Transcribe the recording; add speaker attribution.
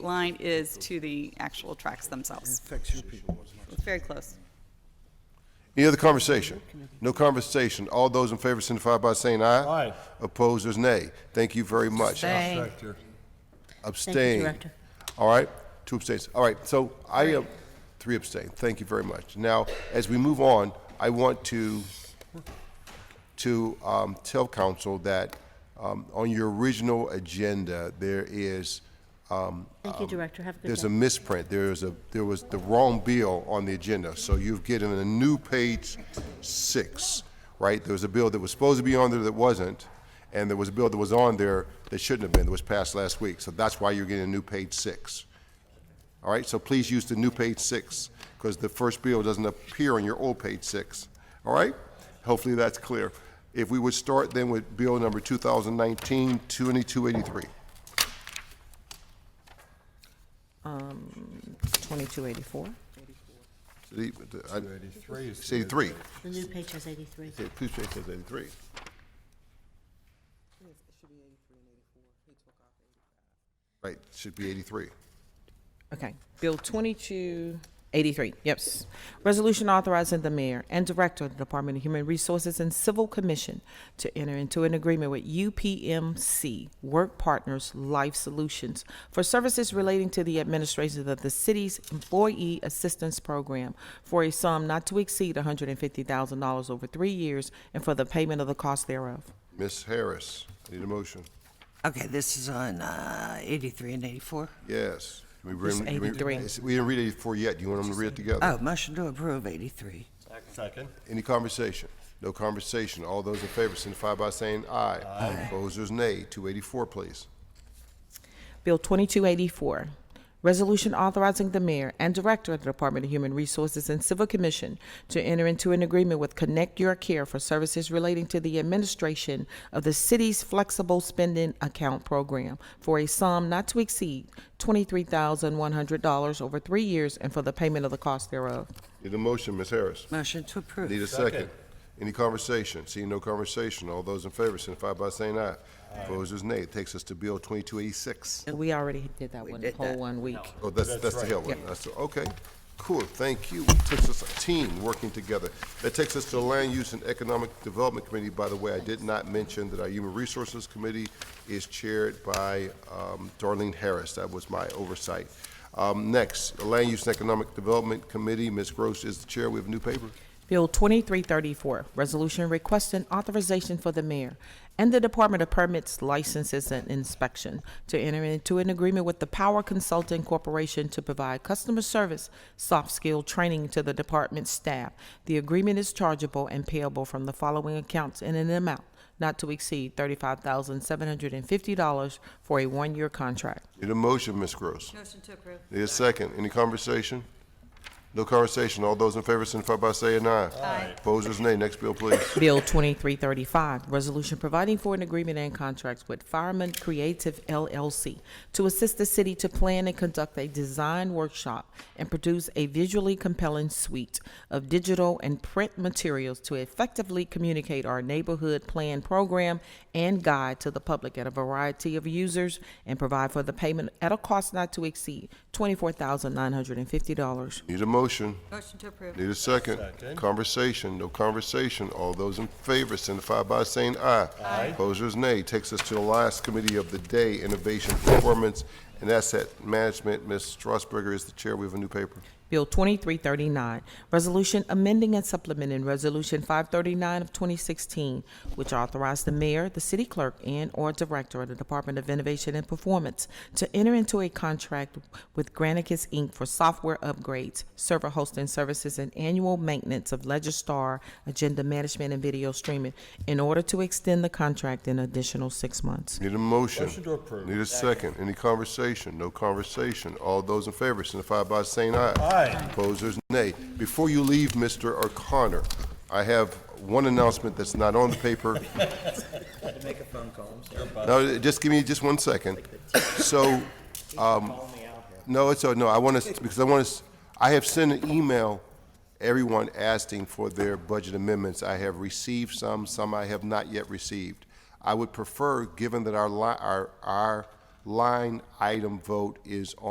Speaker 1: line is to the actual tracks themselves.
Speaker 2: affects your people.
Speaker 1: It's very close.
Speaker 3: Any other conversation? No conversation. All those in favor signify by saying aye.
Speaker 4: Aye.
Speaker 3: Opposed is nay. Thank you very much.
Speaker 5: Thank
Speaker 4: Director.
Speaker 5: Thank you,
Speaker 3: Abstain.
Speaker 5: Director.
Speaker 3: All right, two abstains. All right, so I, uh, three abstain. Thank you very much. Now, as we move on, I want to, to um, tell council that um, on your original agenda, there is,
Speaker 5: Thank you, Director. Have a good
Speaker 3: there's a
Speaker 5: day.
Speaker 3: misprint. There is a, there was the wrong bill on the agenda. So you've given a new page six, right? There was a bill that was supposed to be on there that wasn't, and there was a bill that was on there that shouldn't have been, that was passed last week. So that's why you're getting a new page six. All right, so please use the new page six, because the first bill doesn't appear on your old page six. All right? Hopefully that's clear. If we would start then with bill number 2019-2283.
Speaker 6: 2284.
Speaker 3: The- the- I-
Speaker 4: 83 is.
Speaker 3: 83.
Speaker 5: The new page has 83.
Speaker 3: Okay, please change that to 83. Right, it should be 83.
Speaker 6: Okay. Bill 2283. Yes. Resolution authorizing the mayor and director of the Department of Human Resources and Civil Commission to enter into an agreement with UPMC Work Partners Life Solutions for services relating to the administration of the city's employee assistance program for a sum not to exceed $150,000 over three years and for the payment of the cost thereof.
Speaker 3: Ms. Harris, need a motion?
Speaker 7: Okay, this is on uh, 83 and 84.
Speaker 3: Yes. Can we
Speaker 6: It's
Speaker 3: bring- can we-
Speaker 6: 83.
Speaker 3: it's- We didn't read 84 yet. Do you want them to read it together?
Speaker 7: Oh, motion to approve 83.
Speaker 4: Second.
Speaker 3: Any conversation? No conversation. All those in favor signify by saying aye. Opposers, nay. 284, please.
Speaker 6: Bill 2284, Resolution Authorizing the Mayor and Director of the Department of Human Resources and Civil Commission to enter into an agreement with Connect Your Care for services relating to the administration of the city's flexible spending account program for a sum not to exceed $23,100 over three years and for the payment of the cost thereof.
Speaker 3: Need a motion, Ms. Harris?
Speaker 7: Motion to approve.
Speaker 3: Need a
Speaker 4: Second.
Speaker 3: second. Any conversation? Seeing no conversation, all those in favor signify by saying aye. Opposers, nay. Takes us to Bill 2286.
Speaker 6: We already did that one, the
Speaker 7: did
Speaker 6: whole
Speaker 7: that.
Speaker 6: one week.
Speaker 3: Oh, that's, that's the Hill one. That's, the- okay, cool, thank you. It Takes us a team working together. That takes us to the Land Use and Economic Development Committee. By the way, I did not mention that our Human Resources Committee is chaired by um, Darlene Harris. That was my oversight. Um, Next, the Land Use and Economic Development Committee, Ms. Gross is the chair. We have a new paper.
Speaker 6: Bill 2334, resolution requesting authorization for the mayor and the Department of Permits, Licenses, and Inspection to enter into an agreement with the Power Consulting Corporation to provide customer service soft skill training to the department staff. The agreement is chargeable and payable from the following accounts in an amount not to exceed $35,750 for a one-year contract.
Speaker 3: Need a motion, Ms. Gross?
Speaker 5: Motion to approve.
Speaker 3: Need a second. Any conversation? No conversation. All those in favor signify by saying aye. Aye. Opposers, nay. Next bill, please.
Speaker 6: Bill 2335, resolution providing for an agreement and contracts with Fireman Creative LLC to assist the city to plan and conduct a design workshop and produce a visually compelling suite of digital and print materials to effectively communicate our neighborhood plan program and guide to the public at a variety of users and provide for the payment at a cost not to exceed $24,950.
Speaker 3: Need a motion?
Speaker 5: Motion to approve.
Speaker 3: Need a second?
Speaker 4: Second.
Speaker 3: Conversation, no conversation. All those in favor signify by saying aye. Aye. Opposers, nay. Takes us to the last committee of the day, Innovation, Performance, and Asset Management. Ms. Strasburger is the chair. We have a new paper.
Speaker 6: Bill 2339, Resolution Amending and Supplementing Resolution 539 of 2016, which authorized the mayor, the city clerk, and/or director of the Department of Innovation and Performance to enter into a contract with Granicus, Inc. for software upgrades, server hosting services, and annual maintenance of Legistar, agenda management, and video streaming in order to extend the contract an additional six months.
Speaker 3: Need a motion?
Speaker 4: Motion to approve.
Speaker 3: Need a second. Any conversation? No conversation. All those in favor signify by saying aye.
Speaker 4: Aye.
Speaker 3: Opposers, nay. Before you leave, Mr. O'Connor, I have one announcement that's not on the paper. No, just give me just one second. So, um, no, it's, uh, no, I want to, because I want to, I have sent an email, everyone asking for their budget amendments. I have received some, some I have not yet received. I would prefer, given that our li, our, our line item vote is on.